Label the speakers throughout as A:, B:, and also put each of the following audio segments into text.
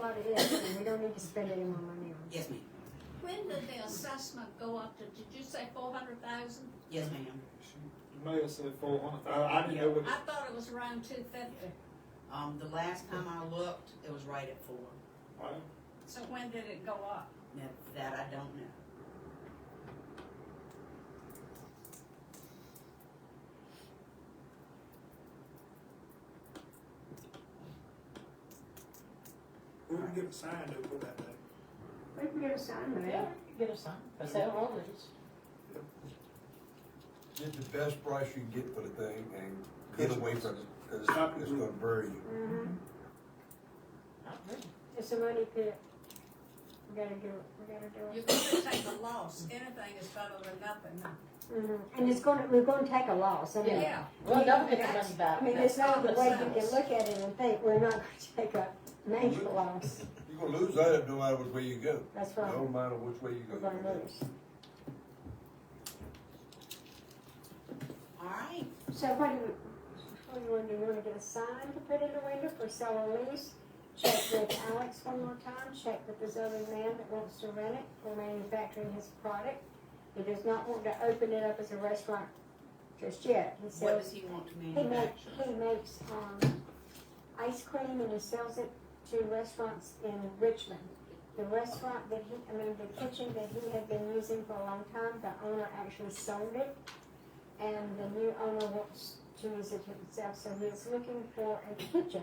A: what it is, and we don't need to spend any more money on it.
B: Yes, ma'am.
C: When did the assessment go up to, did you say four hundred thousand?
B: Yes, ma'am.
D: You may have said four hundred. I, I didn't know what.
C: I thought it was around two fifty,
B: Um, the last time I looked, it was right at four.
D: Right.
C: so when did it go up?
B: Now, that I don't know.
E: We can get a sign though for that day.
A: We can get a sign
F: Yeah,
A: there.
F: get a sign, for sale or lease.
G: Get the best price you can get for the thing and get away from it, cause
E: Stop it.
G: it's gonna bury you.
A: Mhm.
F: I agree.
A: It's a money pit. We gotta do it, we gotta do
C: You're
A: it.
C: gonna take a loss, anything is better than nothing.
A: Mhm. And it's gonna, we're gonna take a loss, I mean.
C: Yeah,
F: Well, don't get the money
A: I
F: back.
A: mean,
F: That's
A: there's no other way you
F: what it
A: can
F: says.
A: look at it and think, we're not gonna take a major loss,
G: You're gonna lose that no matter which way you go,
A: that's
G: no
A: right,
G: matter which way you go.
A: we're
G: you're gonna
A: gonna
G: lose.
A: lose.
B: All right.
A: So what do you, what do oh, you want, do you wanna get a sign to put in the window for sell or lease? Check with Alex one more time, check with this other man that wants to rent it for manufacturing his product. He does not want to open it up as a restaurant just yet, he
B: What
A: sells,
B: does he want to
A: he makes,
B: manufacture?
A: he makes, um, ice cream and he sells it to restaurants in Richmond. The restaurant that he, I mean, the kitchen that he had been using for a long time, the owner actually sold it. And the new owner wants to use it himself, so he is looking for a kitchen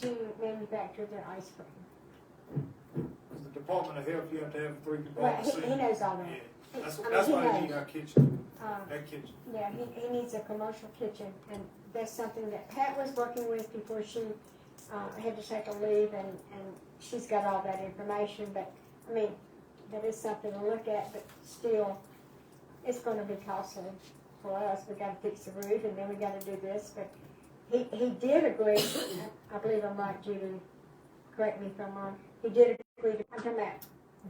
A: to manufacture their ice cream.
E: The Department of Health, you have to have three
A: Well,
E: departments.
A: he, he knows all
E: Yeah,
A: that. He-
E: that's,
A: I mean,
E: that's
A: he
E: why you
A: knows.
E: need our kitchen,
A: Um,
E: that kitchen.
A: Yeah, he, he needs a commercial kitchen, and that's something that Pat was working with before she, uh, had to take a leave, and, and she's got all that information, but, I mean, that is something to look at, but still, it's gonna be costly for us, we gotta fix the roof, and then we gotta do this, but he, he did agree, I believe I'm right, Judy, correct me if I'm wrong, he did agree to come out,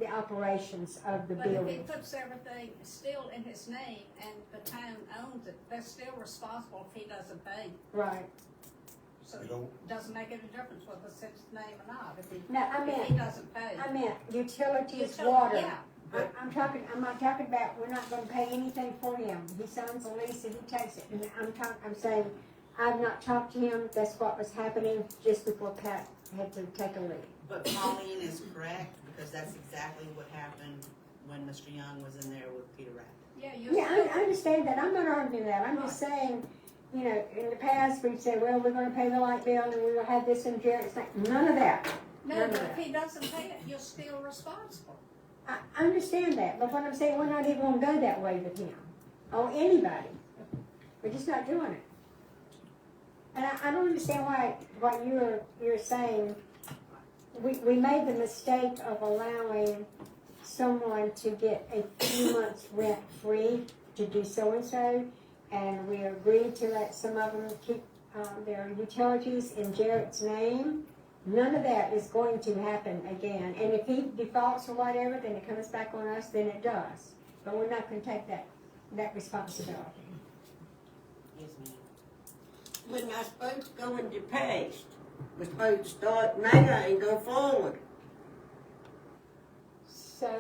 A: the operations of the
C: but if he
A: building.
C: puts everything still in his name and the town owns it, they're still responsible if he doesn't pay.
A: Right,
C: So
G: You don't,
C: it doesn't make any difference whether it's his name or not, if he,
A: no, I mean.
C: if he doesn't pay.
A: I meant utilities,
C: Util-
A: water.
C: Yeah,
A: I- I'm talking, I'm not talking about, we're not gonna pay anything for him. He signs a lease and he takes it. And I'm talking, I'm saying, I've not talked to him, that's what was happening just before Pat had to take a leave.
B: But Pauline is correct, because that's exactly what happened when Mr. Young was in there with Peter Rabbit.
C: yeah, you're
A: Yeah, I, I
C: still,
A: understand that, I'm not arguing that, I'm just saying, you know, in the past, we'd say, well, we're gonna pay the light bill and we will have this and Jared's like, none of that.
C: no, but if he doesn't pay it, you're still responsible.
A: I, I understand that, but what I'm saying, we're not even gonna go that way with him, or anybody. We're just not doing it. And I, I don't understand why, why you're, you're saying, we, we made the mistake of allowing someone to get a few months rent free to do so-and-so, and we agreed to let some of them keep, um, their utilities in Jarrett's name. None of that is going to happen again, and if he defaults or whatever, then it comes back on us, then it does. But we're not gonna take that, that responsibility.
B: Yes, ma'am.
H: When I spoke to go in the past, we supposed to start now and go forward.
A: So,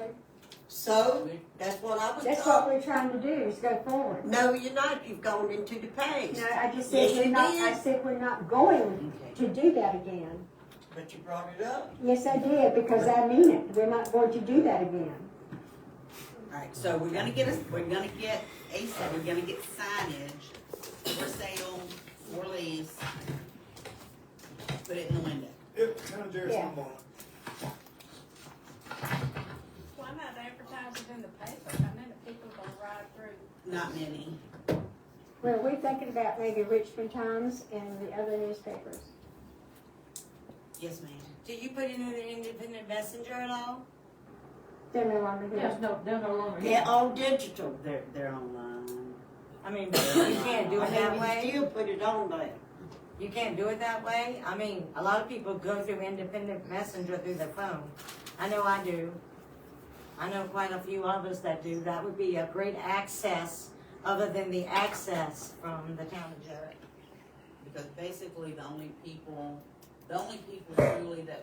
H: So, that's what I was
A: that's what
H: told.
A: we're trying to do, is go forward.
H: No, you're not, you've gone into the past.
A: No, I just said, we're not, I said we're not going
B: Okay.
A: to do that again.
H: But you brought it up.
A: Yes, I did, because I mean it, we're not going to do that again.
B: All right, so we're gonna get, a- we're gonna get, ASAP, we're gonna get signage for sale, for lease. Put it in the window.
E: Yep, kind of Jerry's
A: Yeah.
E: one more.
C: Why not advertise it in the paper? I mean, the people gonna ride through.
B: Not many.
A: Well, we're thinking about maybe Richmond Times and the other newspapers.
B: Yes, ma'am.
H: Did you put it in the independent messenger at all?
A: They're no longer
F: There's
A: here.
F: no, they're no longer. here.
H: They're all digital.
B: They're, they're online.
I: I mean, but you can't do
H: I
I: it that
H: mean, you
I: way.
H: still put it on there.
I: You can't do it that way. I mean, a lot of people go through independent messenger through their phone. I know I do. I know quite a few others that do. That would be a great access, other than the access from the town of Jarrett.
B: Because basically the only people, the only people truly that